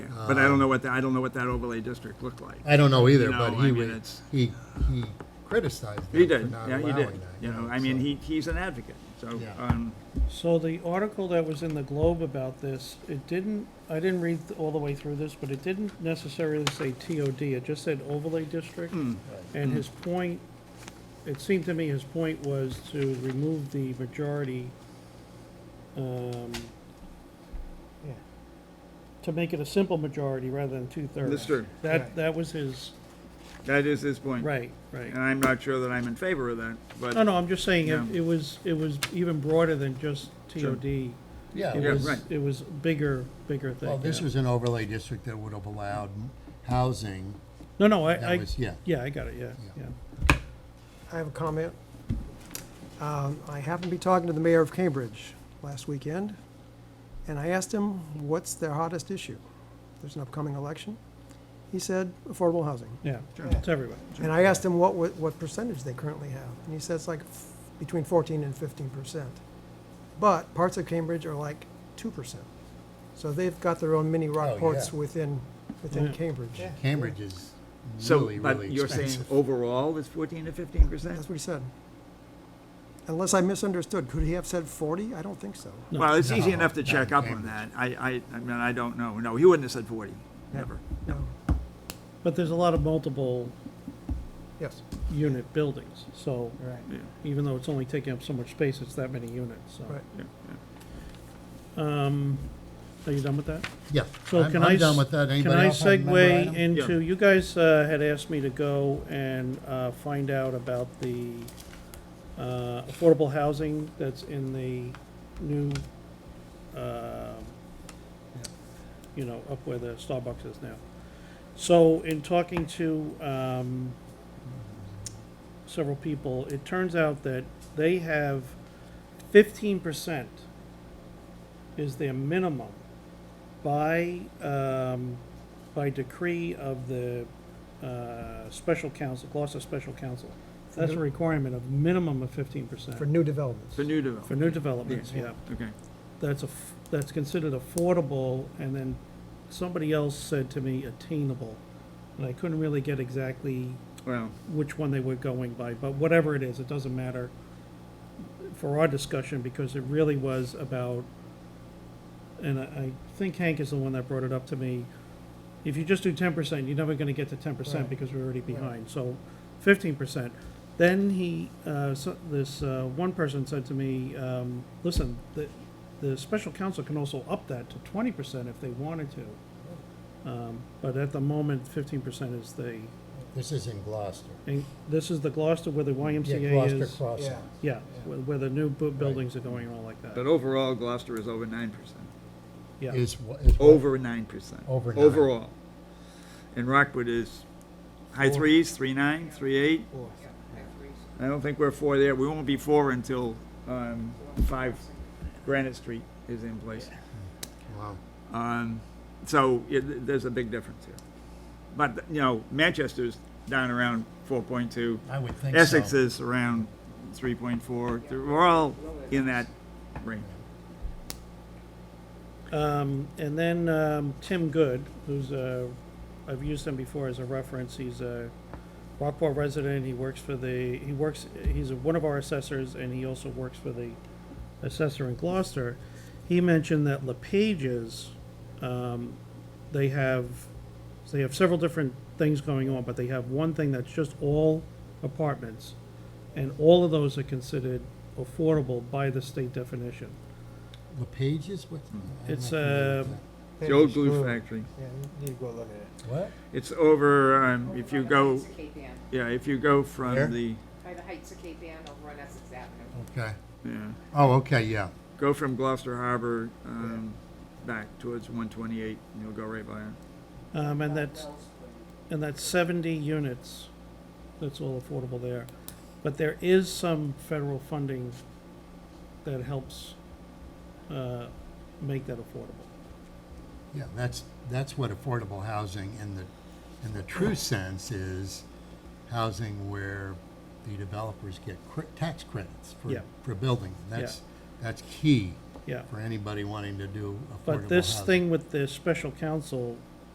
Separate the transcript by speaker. Speaker 1: But I don't know what, the- I don't know what that overlay district looked like.
Speaker 2: I don't know either,
Speaker 1: No,
Speaker 2: but
Speaker 1: I
Speaker 2: he,
Speaker 1: mean,
Speaker 2: wa-
Speaker 1: it's-
Speaker 2: he, he criticized
Speaker 1: He
Speaker 2: them for
Speaker 1: did,
Speaker 2: not
Speaker 1: yeah, he
Speaker 2: allowing
Speaker 1: did.
Speaker 2: that.
Speaker 1: You know, I mean,
Speaker 2: so-
Speaker 1: he, he's an advocate, so,
Speaker 2: Yeah.
Speaker 1: um,
Speaker 3: So the article that was in the Globe about this, it didn't, I didn't read all the way through this, but it didn't necessarily say TOD, it just said overlay district.
Speaker 1: Hmm.
Speaker 3: And his point, it seemed to me his point was to remove the majority, um, to make it a simple majority rather than two-thirds.
Speaker 1: That's true.
Speaker 3: That, that was his,
Speaker 1: that is his point.
Speaker 3: right, right.
Speaker 1: And I'm not sure that I'm in favor of that, but.
Speaker 3: No, no, I'm just saying,
Speaker 1: Yeah.
Speaker 3: it- it was, it was even broader than just
Speaker 1: Sure.
Speaker 3: TOD.
Speaker 2: Yeah,
Speaker 3: It
Speaker 1: Yeah,
Speaker 2: well,
Speaker 3: was,
Speaker 1: right.
Speaker 3: it was bigger, bigger thing.
Speaker 2: well, this
Speaker 3: yeah.
Speaker 2: was an overlay district that would have allowed housing,
Speaker 3: No, no, I,
Speaker 2: that
Speaker 3: I,
Speaker 2: was, yeah.
Speaker 3: yeah, I got it, yeah,
Speaker 2: Yeah.
Speaker 3: yeah.
Speaker 4: I have a comment. Um, I happened to be talking to the mayor of Cambridge last weekend, and I asked him, what's their hottest issue? There's an upcoming election. He said, affordable housing.
Speaker 3: Yeah,
Speaker 1: Sure.
Speaker 3: it's everywhere.
Speaker 4: And I asked him what, wa- what percentage they currently have, and he said it's like f- between 14 and 15 percent. But parts of Cambridge are like 2 percent. So they've got their own mini Rockports
Speaker 2: yeah.
Speaker 4: within, within
Speaker 3: Yeah.
Speaker 4: Cambridge.
Speaker 2: Cambridge is
Speaker 1: So,
Speaker 2: really,
Speaker 1: but
Speaker 2: really
Speaker 1: you're saying
Speaker 2: expensive.
Speaker 1: overall it's fourteen to fifteen percent?
Speaker 4: That's what he said. Unless I misunderstood, could he have said 40? I don't think so.
Speaker 3: No.
Speaker 1: Well, it's easy
Speaker 2: No,
Speaker 1: enough to
Speaker 2: no,
Speaker 1: check up on
Speaker 2: Cambridge.
Speaker 1: that. I, I, I mean, I don't know. No, he wouldn't have said forty,
Speaker 4: Yeah.
Speaker 1: never.
Speaker 4: No.
Speaker 3: But there's a lot of multiple
Speaker 4: Yes.
Speaker 3: unit buildings, so
Speaker 4: Right.
Speaker 1: Yeah,
Speaker 3: even though it's only taking up so much space, it's that many units, so.
Speaker 4: Right.
Speaker 1: yeah,
Speaker 3: Um, are you done with that?
Speaker 2: Yeah,
Speaker 3: So
Speaker 2: I'm
Speaker 3: can I
Speaker 2: I'm done
Speaker 3: s-
Speaker 2: with that.
Speaker 3: Can
Speaker 2: Anybody
Speaker 3: I
Speaker 2: else have another
Speaker 3: segue
Speaker 2: item?
Speaker 1: Yeah.
Speaker 3: into, you guys uh, had asked me to go and uh, find out about the uh, affordable housing that's in the new, uh, you know, up where the Starbucks is now. So in talking to um, several people, it turns out that they have fifteen percent is their minimum by, um, by decree of the, uh, special council, Gloucester Special Council. That's a requirement of minimum of fifteen percent
Speaker 4: For new developments.
Speaker 1: For new development.
Speaker 3: for new developments,
Speaker 4: Yeah.
Speaker 3: yeah.
Speaker 1: Okay,
Speaker 3: That's a, f- that's considered affordable, and then somebody else said to me attainable. And I couldn't really get exactly
Speaker 1: well,
Speaker 3: which one they were going by, but whatever it is, it doesn't matter for our discussion, because it really was about, and I, I think Hank is the one that brought it up to me, if you just do ten percent, you're never gonna get to ten percent
Speaker 4: Right.
Speaker 3: because we're already behind, so fifteen percent. Then he, uh, so, this, uh, one person said to me, um, listen, the, the special counsel can also up that to twenty percent if they wanted to.
Speaker 4: Oh.
Speaker 3: Um, but at the moment, fifteen percent is the,
Speaker 2: This is in Gloucester.
Speaker 3: and this is the Gloucester where the
Speaker 2: Yeah,
Speaker 3: YMCA
Speaker 2: Gloucester
Speaker 3: is.
Speaker 2: Crossing.
Speaker 3: Yeah, where, where the new bu- buildings are going and all like
Speaker 1: but
Speaker 3: that.
Speaker 1: overall Gloucester is over nine percent,
Speaker 3: Yeah,
Speaker 2: Is, wha- is. what-
Speaker 1: over nine percent.
Speaker 2: Over nine.
Speaker 1: Overall. And Rockwood is high threes, three nine, three eight. I don't think we're four there. We won't be four until, um, five Granite Street is in place.
Speaker 2: Wow.
Speaker 1: Um, so it, there's a big difference here. But, you know, Manchester's down around four point two.
Speaker 2: I would think so.
Speaker 1: Essex is around three point four. We're all in that range.
Speaker 3: um, and then, um, Tim Good, who's a, I've used him before as a reference, he's a Rockport resident, he works for the, he works, he's one of our assessors, and he also works for the assessor in Gloucester. He mentioned that LePage's, um, they have, they have several different things going on, but they have one thing that's just all apartments. And all of those are considered affordable by the state definition.
Speaker 2: LePage is what? I'm
Speaker 3: It's,
Speaker 2: not familiar with
Speaker 3: uh,
Speaker 1: The old glue factory.
Speaker 4: Yeah, you need to go look at it.
Speaker 2: that.
Speaker 3: uh,
Speaker 2: What?
Speaker 1: It's over, um, if
Speaker 5: Over
Speaker 1: you
Speaker 5: by the
Speaker 1: go,
Speaker 5: Heights of Cape Ann,
Speaker 1: yeah, if you go
Speaker 2: Where?
Speaker 1: from the,
Speaker 5: by the Heights of Cape Ann over on Essex Avenue.
Speaker 2: Okay.
Speaker 1: yeah,
Speaker 2: Oh, okay, yeah.
Speaker 1: go from Gloucester Harbor, um, back towards one twenty-eight, and you'll go right by it.
Speaker 3: Um, and that's, and that's seventy units, that's all affordable there. But there is some federal funding that helps, uh, make that affordable.
Speaker 2: Yeah, that's, that's what affordable housing in the, in the true sense is housing where the developers get cr- tax credits for,
Speaker 3: Yeah.
Speaker 2: for building. That's, that's key
Speaker 3: Yeah,
Speaker 2: for anybody wanting to do affordable housing.
Speaker 3: but this thing with the special counsel